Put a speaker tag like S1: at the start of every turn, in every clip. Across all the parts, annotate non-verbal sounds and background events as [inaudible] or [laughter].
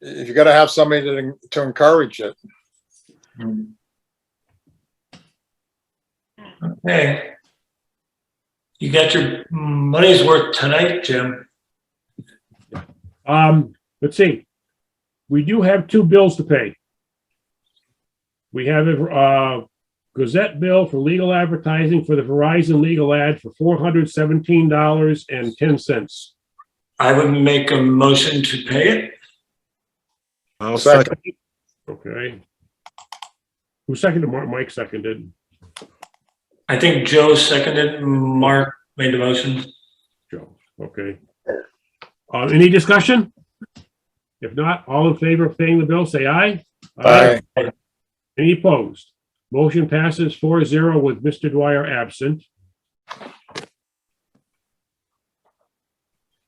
S1: you gotta have somebody to, to encourage it.
S2: Okay. You got your money's worth tonight, Jim.
S3: Um, let's see. We do have two bills to pay. We have a uh, Gazette bill for legal advertising for the Verizon legal ad for four hundred seventeen dollars and ten cents.
S2: I would make a motion to pay it.
S4: I'll
S1: Second.
S4: second.
S3: Okay. Who seconded? Mark, Mike seconded.
S2: I think Joe seconded, Mark made the motion.
S3: Joe, okay. Uh, any discussion? If not, all in favor of paying the bill, say aye.
S1: Aye.
S3: Any opposed? Motion passes 4-0 with Mr. Dwyer absent.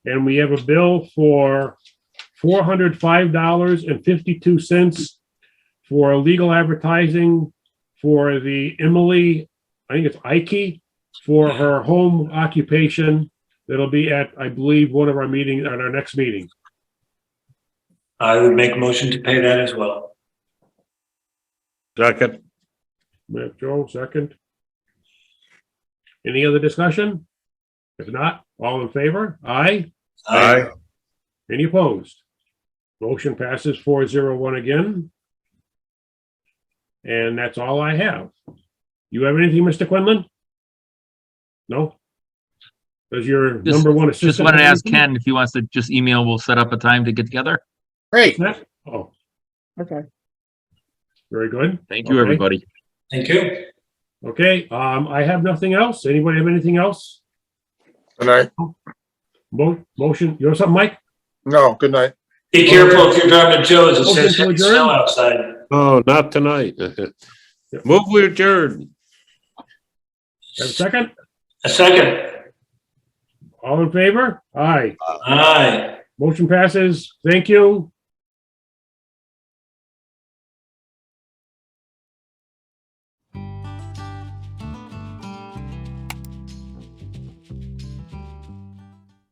S3: And we have a bill for four hundred five dollars and fifty-two cents for legal advertising for the Emily, I think it's Ike, for her home occupation. That'll be at, I believe, one of our meeting, at our next meeting.
S2: I would make a motion to pay that as well.
S4: Second.
S3: We have Joe, second. Any other discussion? If not, all in favor? Aye.
S2: I
S4: Aye.
S3: Any opposed? Motion passes four zero one again. And that's all I have. You have anything, Mr. Quinlan? No? Does your
S5: Just-
S3: number one assistant?
S5: Just wanted to
S3: have
S5: ask
S3: anything?
S5: Ken if he wants to just email, we'll set up a time to get together.
S1: Great,
S3: Matt? Oh,
S6: Okay.
S3: very good.
S5: Thank you,
S3: Okay.
S5: everybody.
S2: Thank you.
S3: Okay, um, I have nothing else. Anybody have anything else?
S1: good night.
S3: Mo- motion, you have something, Mike?
S1: No, good night.
S2: Be careful if you're driving to Joe's, it says
S3: Motion to
S2: heavy
S3: adjourn?
S2: snow outside.
S4: Oh, not tonight. [laughs] Move we adjourn.
S3: Have a second?
S2: A second.
S3: All in favor? Aye.
S2: Aye.
S3: Motion passes. Thank you.